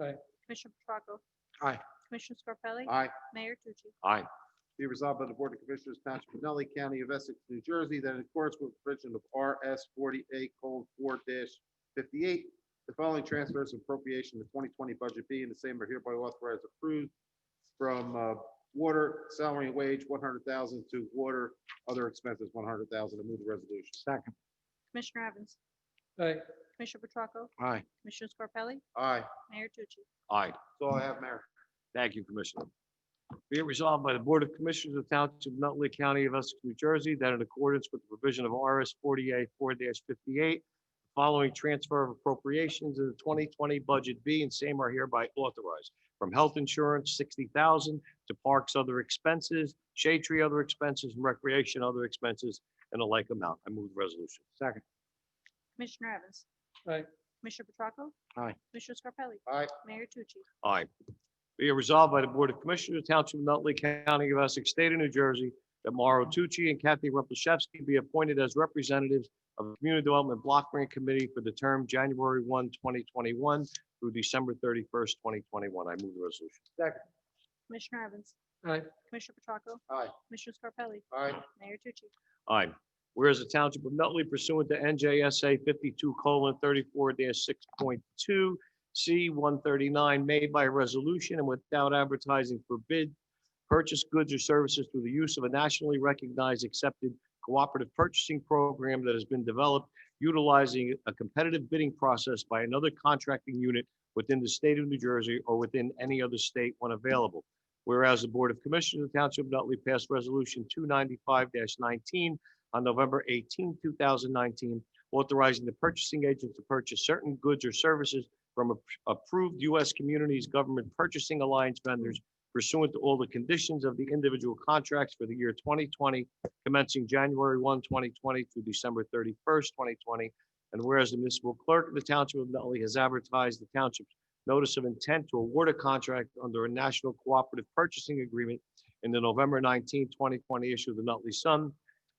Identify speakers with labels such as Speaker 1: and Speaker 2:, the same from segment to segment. Speaker 1: Aye.
Speaker 2: Commissioner Petracco.
Speaker 3: Aye.
Speaker 2: Commissioner Scarpelli.
Speaker 3: Aye.
Speaker 2: Mayor Tucci.
Speaker 4: Aye.
Speaker 3: Be resolved by the Board of Commissioners Township of Nutley County of Essex, New Jersey, that in accordance with the provision of RS forty A colon four fifty-eight, the following transfers and appropriation to twenty twenty budget B and the same are hereby authorized approved from uh, water, salary and wage, one hundred thousand to water, other expenses, one hundred thousand. I move the resolution.
Speaker 4: Second.
Speaker 2: Commissioner Evans.
Speaker 1: aye,
Speaker 2: Commissioner Petracco.
Speaker 4: Aye.
Speaker 2: Commissioner Scarpelli.
Speaker 3: Aye.
Speaker 2: Mayor Tucci.
Speaker 4: Aye.
Speaker 3: That's all I have, Mayor.
Speaker 4: Thank you, Commissioner. Be it resolved by the Board of Commissioners of the Township of Nutley County of Essex, New Jersey, that in accordance with the provision of RS forty-eight four fifty-eight, following transfer of appropriations in the twenty twenty budget B and same are hereby authorized from health insurance sixty thousand to parks other expenses, shade tree other expenses, and recreation other expenses, and a like amount. I move the resolution. Second.
Speaker 2: Commissioner Evans.
Speaker 1: Aye.
Speaker 2: Commissioner Petracco.
Speaker 4: Aye.
Speaker 2: Commissioner Scarpelli.
Speaker 3: Aye.
Speaker 2: Mayor Tucci.
Speaker 4: Aye. Be it resolved by the Board of Commissioners, Township of Nutley County of Essex, State of New Jersey, that Mauro Tucci and Kathy Rumpelshevsky be appointed as representatives of the Community Development Block Grant Committee for the term January 1, 2021 through December 31st, 2021. I move the resolution.
Speaker 2: Commissioner Evans.
Speaker 1: aye,
Speaker 2: Commissioner Petracco.
Speaker 3: Aye.
Speaker 2: Commissioner Scarpelli.
Speaker 3: Aye.
Speaker 2: Mayor Tucci.
Speaker 4: Aye. Whereas the Township of Nutley pursuant to NJSA 52 34 6.2, C 139, made by resolution and without advertising for bid, purchase goods or services through the use of a nationally recognized accepted cooperative purchasing program that has been developed utilizing a competitive bidding process by another contracting unit within the state of New Jersey or within any other state when available. Whereas the Board of Commissioners of the Township of Nutley passed Resolution 295-19 on November 18, 2019, authorizing the purchasing agent to purchase certain goods or services from ap- approved U.S. Communities Government Purchasing Alliance vendors pursuant to all the conditions of the individual contracts for the year 2020, commencing January 1, 2020 through December 31st, 2020. And whereas the municipal clerk of the Township of Nutley has advertised the township's notice of intent to award a contract under a national cooperative purchasing agreement in the November 19, 2020 issue of the Nutley Sun.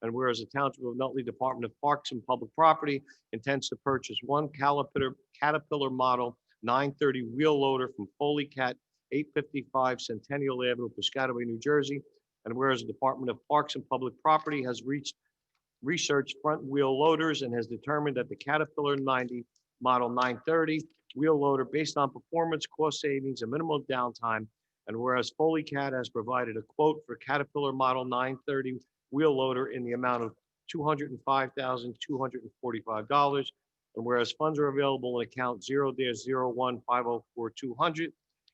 Speaker 4: And whereas the Township of Nutley Department of Parks and Public Property intends to purchase one Caterpillar, Caterpillar Model 930 wheel loader from Foley Cat 855 Centennial Avenue, Piscataway, New Jersey. And whereas the Department of Parks and Public Property has reached, researched front wheel loaders and has determined that the Caterpillar 90 Model 930 wheel loader based on performance, cost savings, and minimal downtime. And whereas Foley Cat has provided a quote for Caterpillar Model 930 wheel loader in the amount of $205,245. And whereas funds are available in account 0-01-504-200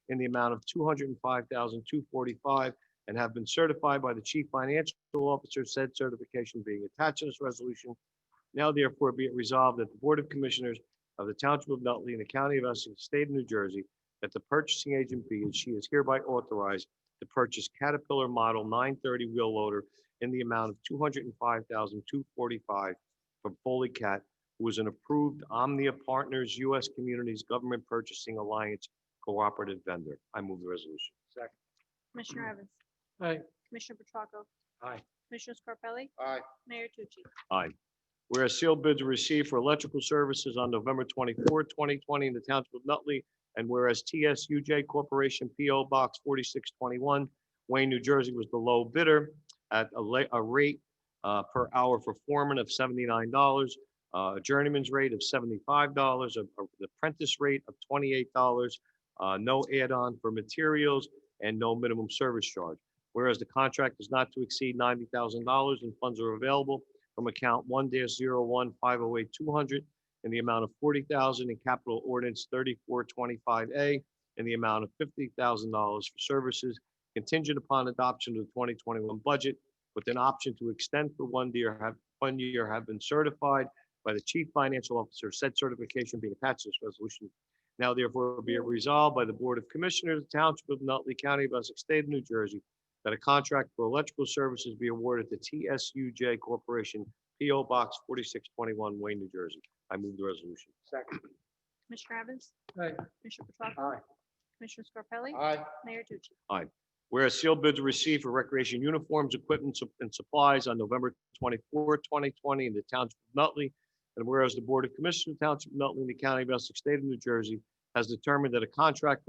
Speaker 4: in the amount of $205,245 and have been certified by the Chief Financial Officer, said certification being attached to this resolution. Now therefore be it resolved that the Board of Commissioners of the Township of Nutley and the County of Essex, State of New Jersey, that the purchasing agent be and she is hereby authorized to purchase Caterpillar Model 930 wheel loader in the amount of $205,245 from Foley Cat, who is an approved Omnia Partners U.S. Communities Government Purchasing Alliance cooperative vendor. I move the resolution. Second.
Speaker 2: Commissioner
Speaker 3: Mm-hmm.
Speaker 2: Evans.
Speaker 1: aye,
Speaker 2: Commissioner Petracco.
Speaker 4: Aye.
Speaker 2: Commissioner Scarpelli.
Speaker 3: Aye.
Speaker 2: Mayor Tucci.
Speaker 4: Whereas sealed bids were received for electrical services on November 24, 2020 in the township of Nutley, and whereas TSUJ Corporation PO Box 4621, Wayne, New Jersey was the low bidder at a la- a rate uh, per hour for foreman of $79, uh, a journeyman's rate of $75, a- a- the apprentice rate of $28, uh, no add-on for materials, and no minimum service charge. Whereas the contract is not to exceed $90,000 and funds are available from account one dash zero one five oh eight two hundred in the amount of forty thousand in capital ordinance thirty-four twenty-five A in the amount of fifty thousand dollars for services contingent upon adoption of the twenty twenty-one budget with an option to extend for one year, have, one year have been certified by the chief financial officer, said certification being attached to this resolution. Now therefore be it resolved by the Board of Commissioners, of the Township of Nutley County of Essex State of New Jersey, that a contract for electrical services be awarded to TSUJ Corporation, PO Box 4621, Wayne, New Jersey. I move the resolution.
Speaker 3: Second.
Speaker 2: Commissioner Evans.
Speaker 1: aye,
Speaker 2: Commissioner Petracco.
Speaker 3: Aye.
Speaker 2: Commissioner Scarpelli.
Speaker 3: Aye.
Speaker 2: Mayor Tucci.
Speaker 4: Whereas sealed bids were received for recreation uniforms, equipment, sup- and supplies on November 24, 2020 in the Township of Nutley. And whereas the Board of Commissioners of the Township of Nutley in the County of Essex, State of New Jersey has determined that a contract